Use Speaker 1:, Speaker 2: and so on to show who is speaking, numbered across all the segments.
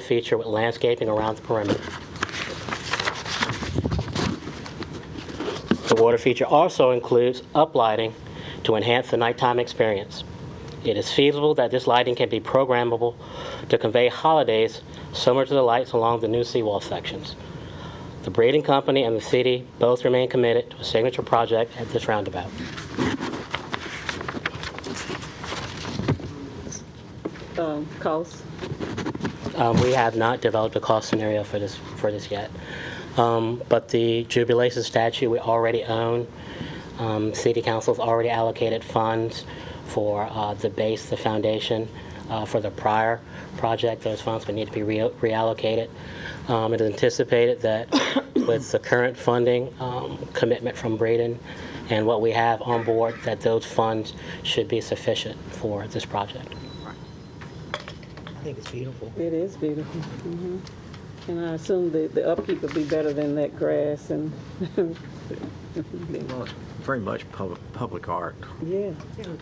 Speaker 1: feature with landscaping around the perimeter. The water feature also includes uplighting to enhance the nighttime experience. It is feasible that this lighting can be programmable to convey holidays similar to the lights along the new seawall sections. The Breeding Company and the city both remain committed to a signature project at this roundabout.
Speaker 2: um, cost?
Speaker 1: Um, We have not developed a cost scenario for this, for this yet. Um, But the jubilation statue, we already own. Um, City council's already allocated funds for uh, the base, the foundation, uh, for the prior project. Those funds would need to be re- reallocated. Um, It is anticipated that with the current funding um, commitment from Braden and what we have on board, that those funds should be sufficient for this project.
Speaker 3: I think it's beautiful.
Speaker 2: It is beautiful. mhm. And I assume the, the upkeep would be better than that grass and,
Speaker 3: Well, it's very much public, public art.
Speaker 2: yeah,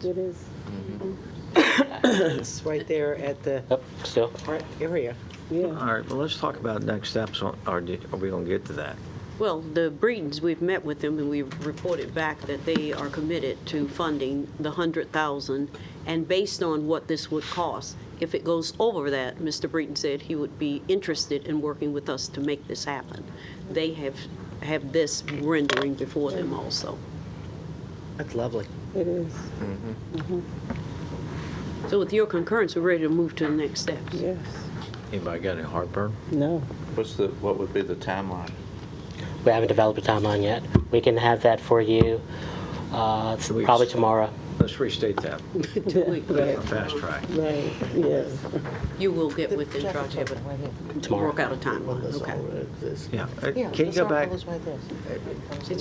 Speaker 2: it is.
Speaker 4: It's right there at the
Speaker 1: Yep, still,
Speaker 4: art area.
Speaker 3: All
Speaker 2: Yeah,
Speaker 3: right, well, let's talk about next steps, on- or did- are we going to get to that?
Speaker 5: Well, the Breedens, we've met with them and we've reported back that they are committed to funding the hundred thousand and based on what this would cost. If it goes over that, Mr. Breeden said he would be interested in working with us to make this happen. They have, have this rendering before them also.
Speaker 4: That's lovely.
Speaker 2: it is,
Speaker 5: So with your concurrence, we're ready to move to the next steps.
Speaker 2: yes.
Speaker 3: Anybody got any heartburn?
Speaker 2: No,
Speaker 6: What's the, what would be the timeline?
Speaker 1: We haven't developed a timeline yet. We can have that for you uh,
Speaker 3: Two weeks.
Speaker 1: probably tomorrow.
Speaker 3: Let's restate that,
Speaker 5: Two weeks.
Speaker 3: a fast track.
Speaker 2: right, yes.
Speaker 5: You will get with them, try to have it,
Speaker 1: Tomorrow.
Speaker 5: work out a timeline, okay?
Speaker 3: Yeah, Uh, can you go back,
Speaker 5: It's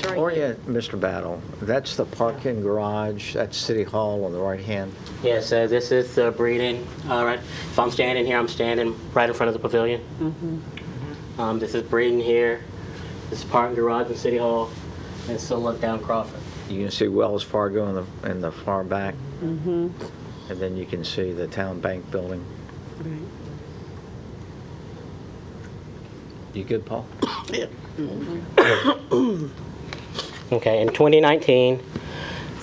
Speaker 5: right here.
Speaker 3: orient Mr. Battle, that's the parking garage, that's City Hall on the right hand?
Speaker 1: Yeah, so this is the breeding, all right. If I'm standing here, I'm standing right in front of the pavilion. Um, This is breeding here, this is parking garage in City Hall, and still look down Crawford.
Speaker 3: You can see Wells Fargo in the, in the far back. And then you can see the town bank building. You good, Paul?
Speaker 1: Okay, in 2019,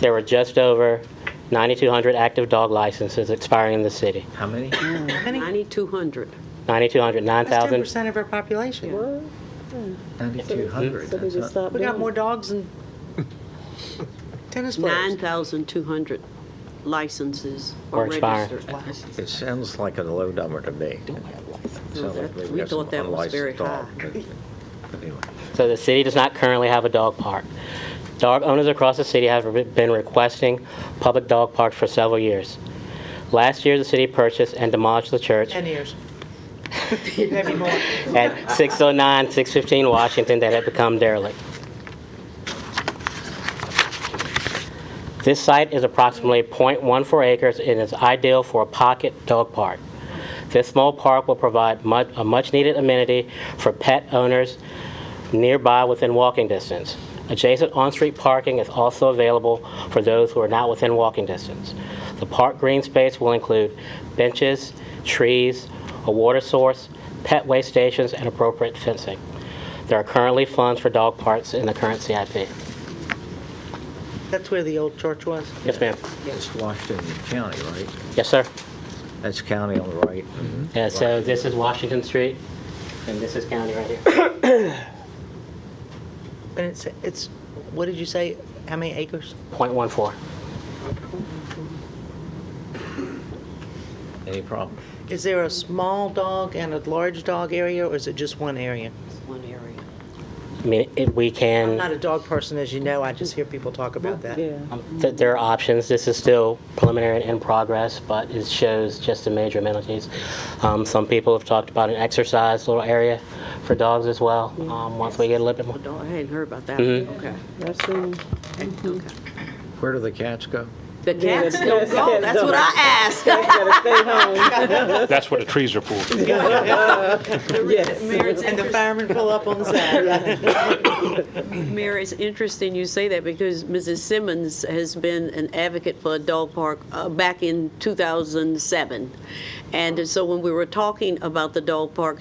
Speaker 1: there were just over 9,200 active dog licenses expiring in the city.
Speaker 3: How many?
Speaker 5: Ninety-two hundred.
Speaker 1: 9,200,
Speaker 4: That's
Speaker 1: 9,000.
Speaker 4: 10% of our population.
Speaker 2: What? So they just uh,
Speaker 3: 9,200.
Speaker 2: stopped
Speaker 4: We got more
Speaker 2: doing
Speaker 4: dogs than tennis players.
Speaker 5: 9,200 licenses
Speaker 1: Or
Speaker 5: are
Speaker 1: expired.
Speaker 5: registered.
Speaker 3: It sounds like a low number to me. Sounds like maybe
Speaker 5: We
Speaker 3: got some
Speaker 5: thought that was very
Speaker 3: unlicensed dog, but anyway.
Speaker 1: So the city does not currently have a dog park. Dog owners across the city have re- been requesting public dog parks for several years. Last year, the city purchased and demolished the church
Speaker 4: 10 years. Maybe more.
Speaker 1: at 609, 615 Washington that had become derelict. This site is approximately .14 acres and is ideal for a pocket dog park. This small park will provide mu- a much-needed amenity for pet owners nearby within walking distance. Adjacent on-street parking is also available for those who are not within walking distance. The park green space will include benches, trees, a water source, pet waste stations, and appropriate fencing. There are currently funds for dog parks in the current CIP.
Speaker 4: That's where the old church was.
Speaker 1: Yes, ma'am.
Speaker 3: It's Washington County, right? Mm-hmm.
Speaker 1: Yes, sir.
Speaker 3: That's county on the right.
Speaker 1: Yeah, so this is Washington Street, and this is county right here.
Speaker 4: And it's, it's, what did you say, how many acres?
Speaker 1: .14.
Speaker 3: Any problem?
Speaker 4: Is there a small dog and a large dog area, or is it just one area?
Speaker 5: One area.
Speaker 1: I mean, it- we
Speaker 4: I'm not
Speaker 1: can,
Speaker 4: a dog person, as you know, I just hear people talk about
Speaker 2: that.
Speaker 4: that.
Speaker 2: Yeah,
Speaker 1: um, th- there are options. This is still preliminary and in progress, but it shows just the major amenities. Um, Some people have talked about an exercise little area for dogs as well, um, once we get a little bit more.
Speaker 5: Oh, I hadn't heard about that.
Speaker 1: Mhm.
Speaker 5: Okay.
Speaker 2: I've seen,
Speaker 5: Okay.
Speaker 3: Where do the cats go?
Speaker 5: The
Speaker 2: Yeah,
Speaker 5: cats
Speaker 2: the
Speaker 5: don't
Speaker 2: cats
Speaker 5: go,
Speaker 2: don't.
Speaker 5: that's what I asked.
Speaker 2: Gotta stay home,
Speaker 7: That's what the trees are for.
Speaker 2: yes.
Speaker 5: Mayor, it's
Speaker 4: And the
Speaker 5: interest-
Speaker 4: firemen pull up on the side.
Speaker 5: Mayor, it's interesting you say that because Mrs. Simmons has been an advocate for a dog park uh, back in 2007. And so when we were talking about the dog park,